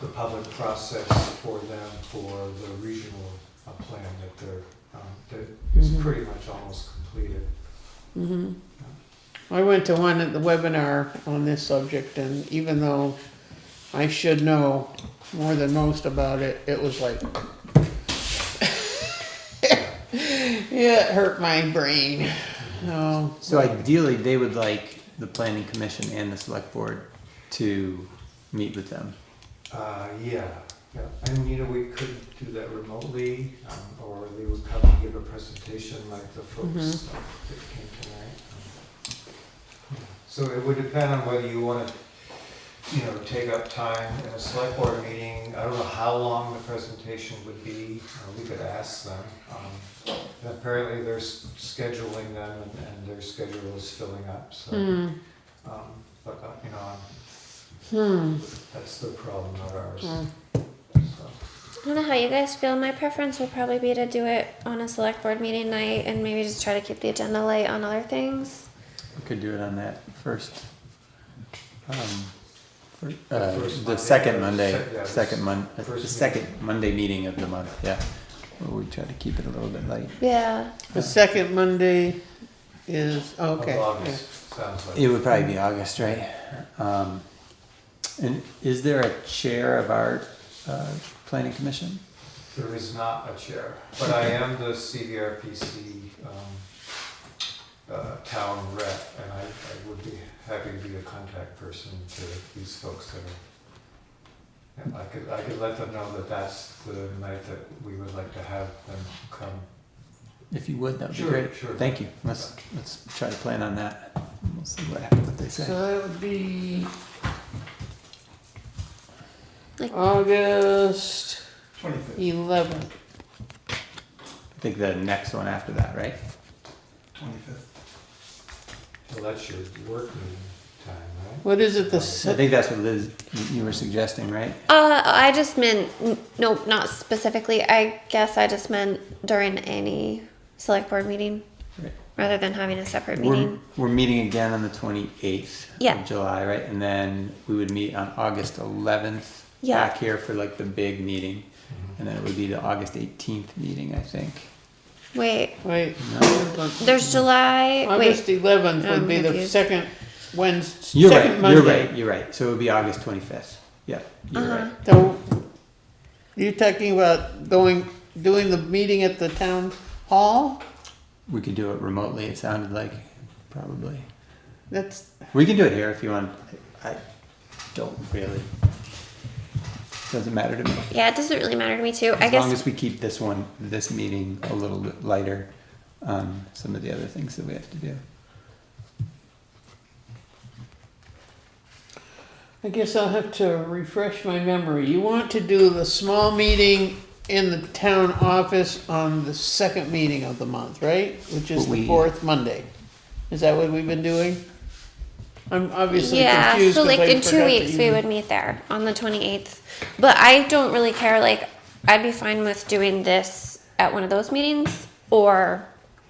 the public process for them for the regional uh, plan that they're, um, that is Mhm. pretty much almost completed. hmm I went to one at the webinar on this subject, and even though I should know more than most about it, it was like, it hurt my brain. Oh, So ideally, they would like the planning commission and the select board to meet with them. Uh, yeah, yeah, and you know, we could do that remotely, um, or they would come and give a presentation like the folks uh, that came tonight. Um, yeah. So it would depend on whether you wanna, you know, take up time in a select board meeting, I don't know how long the presentation would be, uh, we could ask them. Um, and Apparently they're s- scheduling them and- and their schedule is filling up, so, hmm, um, but, uh, you know, hmm. that's their problem, not ours, hmm. so. I don't know how you guys feel. My preference will probably be to do it on a select board meeting night and maybe just try to keep the agenda light on other things. We could do it on that first. um, fir- Uh, first the Monday. second Monday, Sec- yeah, second Mon, uh, first the meeting. second Monday meeting of the month, yeah. Well, we try to keep it a little bit light. Yeah. The second Monday is, of okay. yeah. August, sounds like. It would probably be August, right? Um, and is there a chair of our, uh, planning commission? There is not a chair, but I am the CVRPC um, uh, town rep, and I I would be happy to be a contact person to these folks that are. and I could, I could let them know that that's the night that we would like to have them come. If you would, that would be Sure, great. sure. Thank you. Let's, let's try to plan on that. We'll see what happens, what they say. So that would be Like- August Twenty-fifth, 11th. I think the next one after that, right? twenty-fifth. Well, that's your work meeting time, right? What is it, the I se- think that's what Liz, you- you were suggesting, right? Uh, I just meant, n- no, not specifically. I guess I just meant during any select board meeting Right. rather than having a separate We're, meeting. we're meeting again on the twenty-eighth Yeah. of July, right? And then we would meet on August eleventh, Yeah. back here for like the big meeting. Mhm. And then it would be the August eighteenth meeting, I think. Wait, wait. No. there's July. August Wait, Oh, 11th would I'm be the confused. second Wednesday, You're second right, Monday. you're right, you're right. So it would be August twenty-fifth. Yeah, you're Uh-huh. right. So you're talking about going, doing the meeting at the town hall? We could do it remotely, it sounded like, probably. That's, We can do it here if you want. I don't really. Doesn't matter to me. yeah, it doesn't really matter to me too. I As long guess as we keep this one, this meeting a little bit lighter on some of the other things that we have to do. I guess I'll have to refresh my memory. You want to do the small meeting in the town office on the second meeting of the month, right? Which is the We- fourth Monday. Is that what we've been doing? I'm obviously yeah. confused So 'cause like I in two forgot that weeks you- we would meet there on the 28th. But I don't really care. Like I'd be fine with doing this at one of those meetings or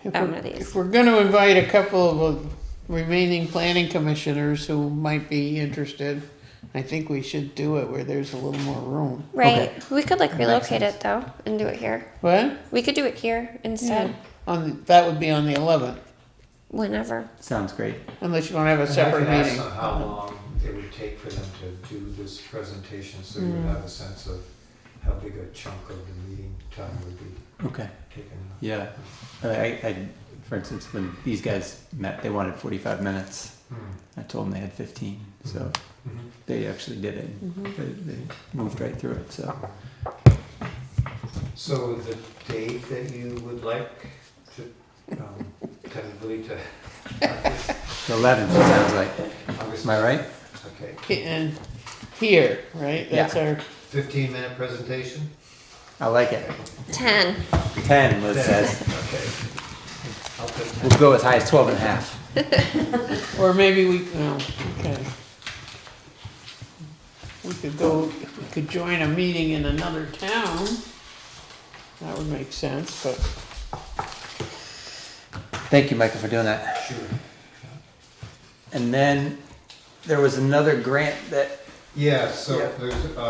If at one we're- of If these. we're gonna invite a couple of uh, remaining planning commissioners who might be interested, I think we should do it where there's a little more room. Right. We could like That makes relocate sense. it though and do it here. What? We could do it here instead. On, the- that would be on the eleventh, Whenever. Sounds great. unless you wanna have a separate And I can ask meeting. them how long it would take for them to do this presentation, so you would have a sense of how big a chunk of the meeting time would be Okay. taken. up. Yeah. I, I, for instance, when these guys met, they wanted 45 minutes. Hmm. I told them they had 15. So Mhm. they actually did it. They, they moved right through it. So Mm-hmm. So the date that you would like to, um, tentatively to, the 11th, it sounds like. August, Am I right? okay, And here, right? That's our, fifteen minute presentation? I like it. 10. 10, Liz says. Okay. I'll take that. We'll go as high as 12 and a half. or maybe we, no, okay. We could go, if we could join a meeting in another town, that would make sense, but. Thank you, Michael, for doing that. Sure. And then there was another grant that Yeah, so Yeah. there's, uh,